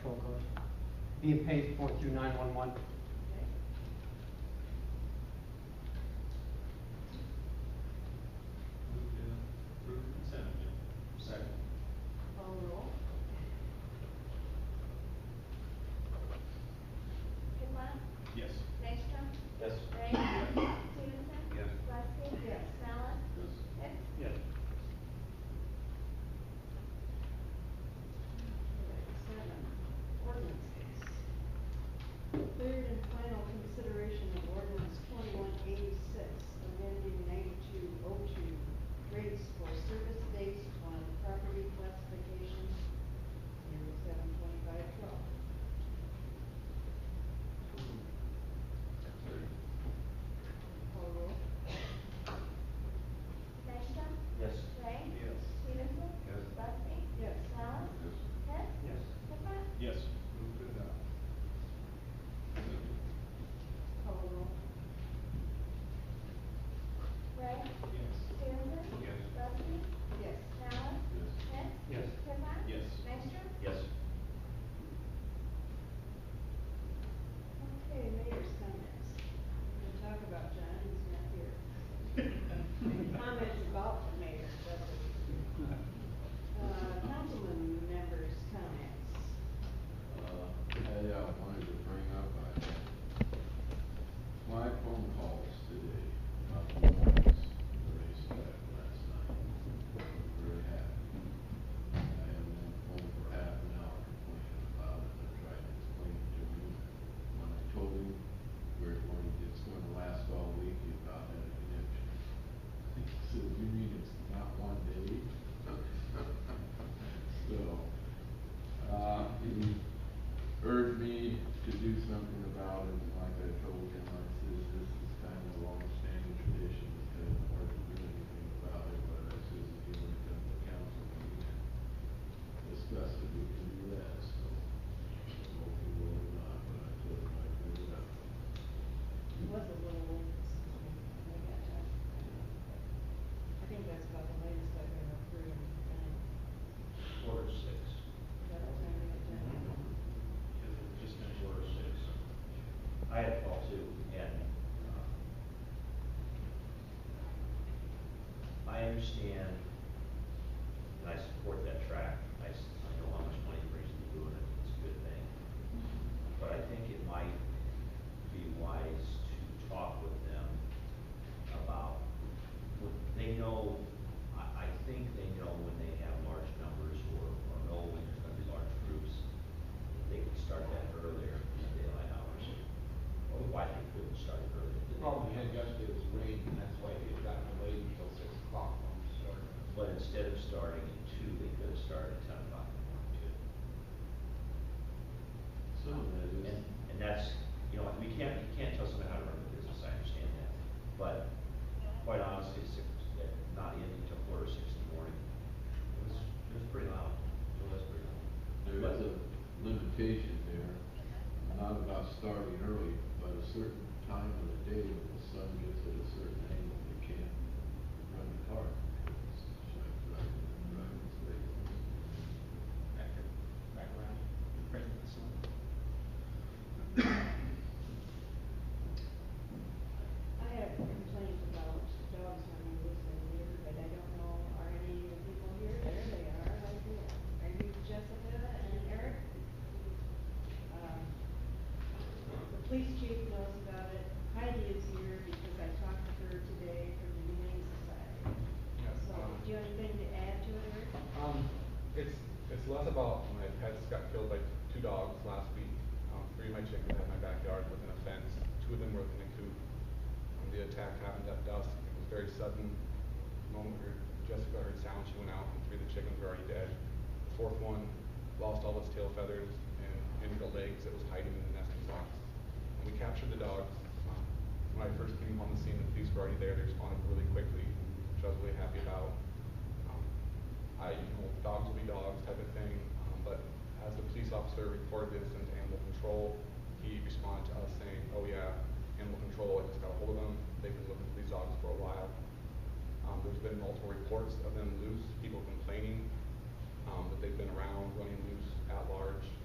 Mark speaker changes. Speaker 1: being paid for through nine-one-one.
Speaker 2: Move to approve consent agenda. Second.
Speaker 3: Call roll.
Speaker 4: Dupont,
Speaker 2: Yes.
Speaker 4: Nystrom,
Speaker 2: Yes.
Speaker 4: Ray, Stevenson.
Speaker 2: Yes.
Speaker 4: Lexi.
Speaker 3: Yes.
Speaker 4: Mallon,
Speaker 2: Yes.
Speaker 4: Hicks.
Speaker 2: Yes.
Speaker 3: Seven, ordinances. Third and final consideration of ordinance twenty-one eighty-six, amending ninety-two oh two rates for service based on property classification, zero seven twenty-five twelve.
Speaker 2: Third.
Speaker 3: Call roll.
Speaker 4: Nystrom,
Speaker 2: Yes.
Speaker 4: Ray,
Speaker 2: Yes.
Speaker 4: Stevenson.
Speaker 2: Yes.
Speaker 4: Lexi.
Speaker 3: Yes.
Speaker 4: Mallon, Hicks.
Speaker 2: Yes.
Speaker 4: Dupont,
Speaker 2: Yes. Move to adopt.
Speaker 3: Call roll.
Speaker 4: Ray,
Speaker 2: Yes.
Speaker 4: Stevenson.
Speaker 2: Yes.
Speaker 4: Lexi.
Speaker 3: Yes.
Speaker 4: Mallon,
Speaker 2: Yes.
Speaker 4: Hicks.
Speaker 1: Yes.
Speaker 4: Dupont.
Speaker 2: Yes.
Speaker 4: Nystrom.
Speaker 2: Yes.
Speaker 3: Okay, mayor's comments. We're gonna talk about John, he's not here. Comments about the mayor, that's what we do. Uh, councilman members' comments.
Speaker 5: Uh, Hey, I wanted to bring up, I had my phone calls today about the warrants that I had last night. Very happy. I have been on the phone for half an hour complaining about it, I tried to explain it to him. When I told him we're going, it's going to last all week, he about had a conniption. He said, you mean it's not one day? So, uh, he urged me to do something about it, and like I told him, I says, this is kind of a long-standing tradition, it's kind of hard to do anything about it, but I says, if you want to come to council meeting and discuss it, we can do that, so. Hopefully will not, but I told him I'd bring it up.
Speaker 3: He was a little late this morning, when I got time. I think that's about the latest I've ever heard of the time.
Speaker 2: Quarter six.
Speaker 3: About the time I got time.
Speaker 2: Because we're just gonna quarter six.
Speaker 6: I had a call too, and, uh, I understand, and I support that track, I, s- I know how much money it brings to doing it, it's a good thing. But I think it might be wise to talk with them about, what- they know, I, I think they know when they have large numbers or, or know when there's gonna be large groups, they can start that earlier in daylight hours. Or why they couldn't start it earlier.
Speaker 7: The problem we had yesterday was rain, and that's why they had gotten away until six o'clock when we started.
Speaker 6: But instead of starting at two, they could have started at ten o'clock in the morning too.
Speaker 5: Some of that is,
Speaker 6: And, and that's, you know, we can't, you can't tell somebody how to run a business, I understand that. But quite honestly, six, eh, not ending till quarter six in the morning, it was, it was pretty loud. It was pretty loud.
Speaker 5: there is a limitation there, not about starting early, but a certain time of the day when the sun gets at a certain angle, you can't run the car. It's like driving, driving straight.
Speaker 2: Back, back around. Right in the sun.
Speaker 3: I have complaints about dogs running loose in here, but I don't know, are any of the people here? There they are, right there. Are you Jessica and Eric? Um, The police chief knows about it. Heidi is here because I talked to her today from the Humane Society.
Speaker 8: Yes,
Speaker 3: So,
Speaker 8: um,
Speaker 3: do you have anything to add to it, Eric?
Speaker 8: um, it's, it's less about my pets got killed by two dogs last week. Um, three of my chickens had my backyard within a fence, two of them were within a coop. Um, the attack happened at dusk, it was very sudden. The moment we heard- Jessica heard sound, she went out, and three of the chickens were already dead. The fourth one lost all its tail feathers and injured the legs, it was hiding in the nesting box. And we captured the dogs. Um, When I first came on the scene, the police were already there, they responded really quickly, which I was really happy about. Um, I, you know, dogs will be dogs type of thing, um, but as the police officer reported this into animal control, he responded to us saying, oh yeah, animal control, I just got a hold of them, they've been looking for these dogs for a while. Um, there's been multiple reports of them loose, people complaining, um, that they've been around, running loose at large,